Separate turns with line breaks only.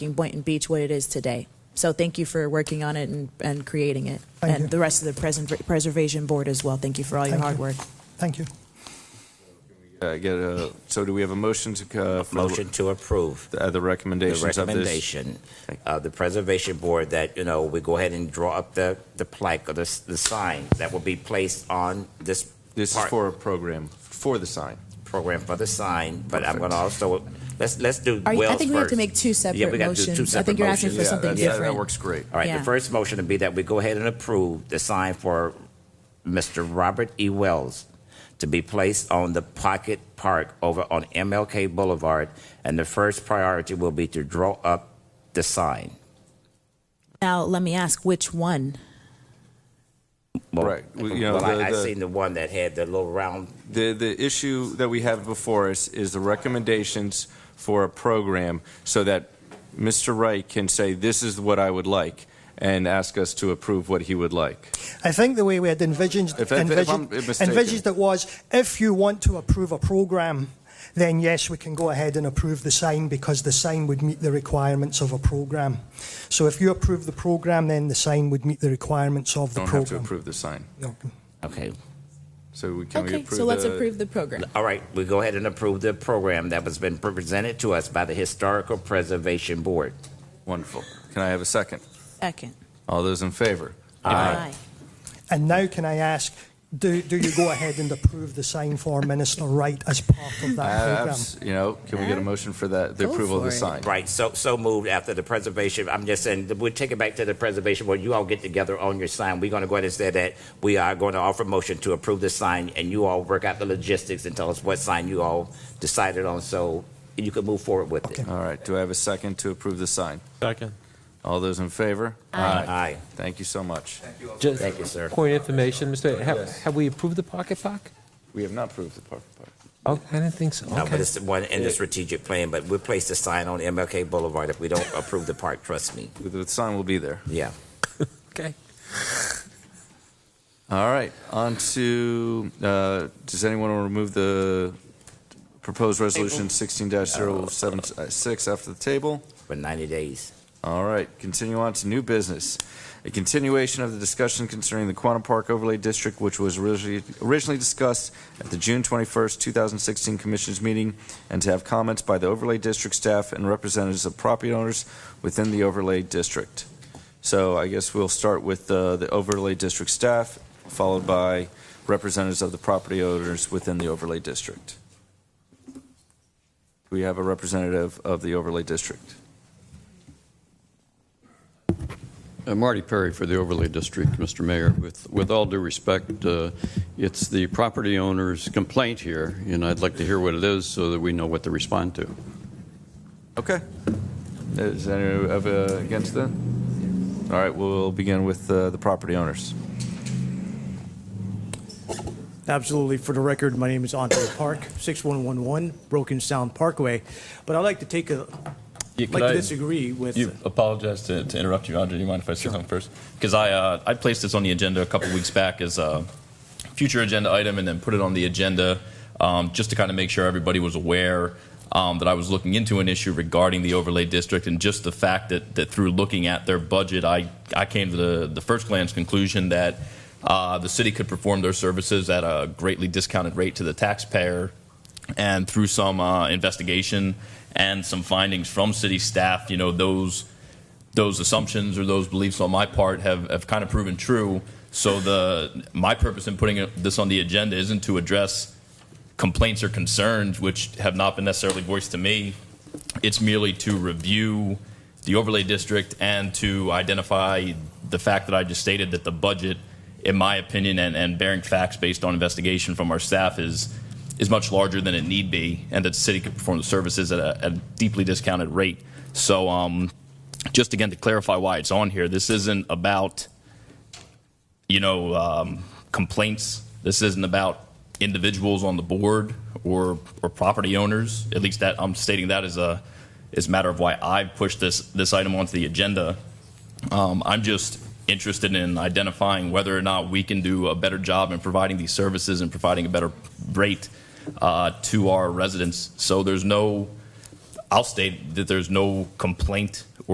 making Boynton Beach what it is today. So thank you for working on it and, and creating it.
Thank
and
you.
the rest of the present, Preservation Board as well. Thank you for all your
Thank
hard
you.
work.
Thank you.
Uh, get a, so do we have a motion to, uh, for
Motion to approve
The, uh, the
the
recommendations of
recommendation of the Preservation Board that, you know, we go ahead and draw up the, the plaque or the, s- the sign that will be placed on this
this. This
part-
is for a program for the sign.
program for the sign, but I'm going
Perfect.
to also, let's, let's do
Are you- I
Wells
think we have to
first.
make two
Yeah,
separate
we got to do two
motions.
separate
I think you're asking
motions.
For something
that's- that, that
different.
works great.
All right,
Yeah.
the first motion would be that we go ahead and approve the sign for Mr. Robert E. Wells to be placed on the Pocket Park over on MLK Boulevard, and the first priority will be to draw up the sign.
Now, let me ask which one?
Well,
Right, well, you know,
well,
the-
I, I
the-
seen the one that had the little round.
The the issue that we have before us is the recommendations for a program, so that Mr. Wright can say this is what I would like, and ask us to approve what he would like.
I think the way we had envisioned,
If I- if I'm
envisioned,
mistaken.
envisioned it was if you want to approve a programme, then yes, we can go ahead and approve the sign because the sign would meet the requirements of a programme. So if you approve the programme, then the sign would meet the requirements of the
Don't have to
programme.
approve the sign.
No.
Okay.
So we, can we approve? the-
the program.
All right, we go ahead and approve the program that has been presented to us by the Historical Preservation Board.
Wonderful. Can I have a second?
Second.
All those in favor?
Aye.
And now can I ask, do, do you go ahead and approve the sign for Minister Wright as part of that
Uh,
programme?
abs- you know, can we get a motion for that? The
Go
approval of
for
the
it.
sign.
Right, so, so moved after the preservation, I'm just saying, that we'll take it back to the preservation board, you all get together on your sign, we're gonna go ahead and say that we are going to offer motion to approve the sign, and you all work out the logistics and tell us what sign you all decided on, so you can move forward with it.
All right. Do I have a second to approve the sign?
Second.
All those in favor?
Aye.
Thank you so much.
Just
Thank you, sir.
point of information, Mr. Have, have we approved the pocket park?
We have not approved the park. park.
Oh, I didn't think so.
No, but
Okay.
it's the one in the strategic plan, but we'll place the sign on MLK Boulevard if we don't approve the park, trust me,
The the sign will be there.
yeah.
Okay.
All right. On to, uh, does anyone want to remove the proposed resolution 16-076 after the table?
For ninety days.
All right, continue on to new business. A continuation of the discussion concerning the Quantum Park Overlay District, which was originally originally discussed at the June 21st, 2016 Commission's meeting, and to have comments by the Overlay District staff and representatives of property owners within the Overlay District. So I guess we'll start with uh, the Overlay District staff, followed by representatives of the property owners within the Overlay District. Do we have a representative of the Overlay District?
Uh, Marty Perry for the Overlay District, Mr. Mayor. With, with all due respect, uh, it's the property owner's complaint here, and I'd like to hear what it is so that we know what to respond to.
Okay. Is any of uh, against that? All right, we'll begin with uh, the property owners.
Absolutely. For the record, my name is Andre Park, 6111 Broken Sound Parkway. But I'd like to take a,
Yeah,
like
could
to
I
disagree with,
you apologize to, to interrupt you, Andre. Do you mind if I say something first? Because I uh, I placed this on the agenda a couple weeks back as a future agenda item, and then put it on the agenda um, just to kind of make sure everybody was aware um, that I was looking into an issue regarding the overlay district, and just the fact that that through looking at their budget, I I came to the the first glance conclusion that. Uh, the city could perform their services at a greatly discounted rate to the taxpayer and through some uh, investigation and some findings from city staff, you know, those those assumptions or those beliefs on my part have, have kind of proven true. So the my purpose in putting it- this on the agenda isn't to address complaints or concerns which have not been necessarily voiced to me. It's merely to review the overlay district and to identify the fact that I just stated that the budget, in my opinion, and, and bearing facts based on investigation from our staff is is much larger than it need be, and that the city could perform the services at a, at a deeply discounted rate. So, um, just again to clarify why it's on here, this isn't about you know, um, complaints. This isn't about individuals on the board or or property owners. At least that I'm stating that as a as a matter of why I've pushed this this item onto the agenda. Um, I'm just interested in identifying whether or not we can do a better job in providing these services and providing a better rate uh, to our residents. So there's no I'll state that there's no complaint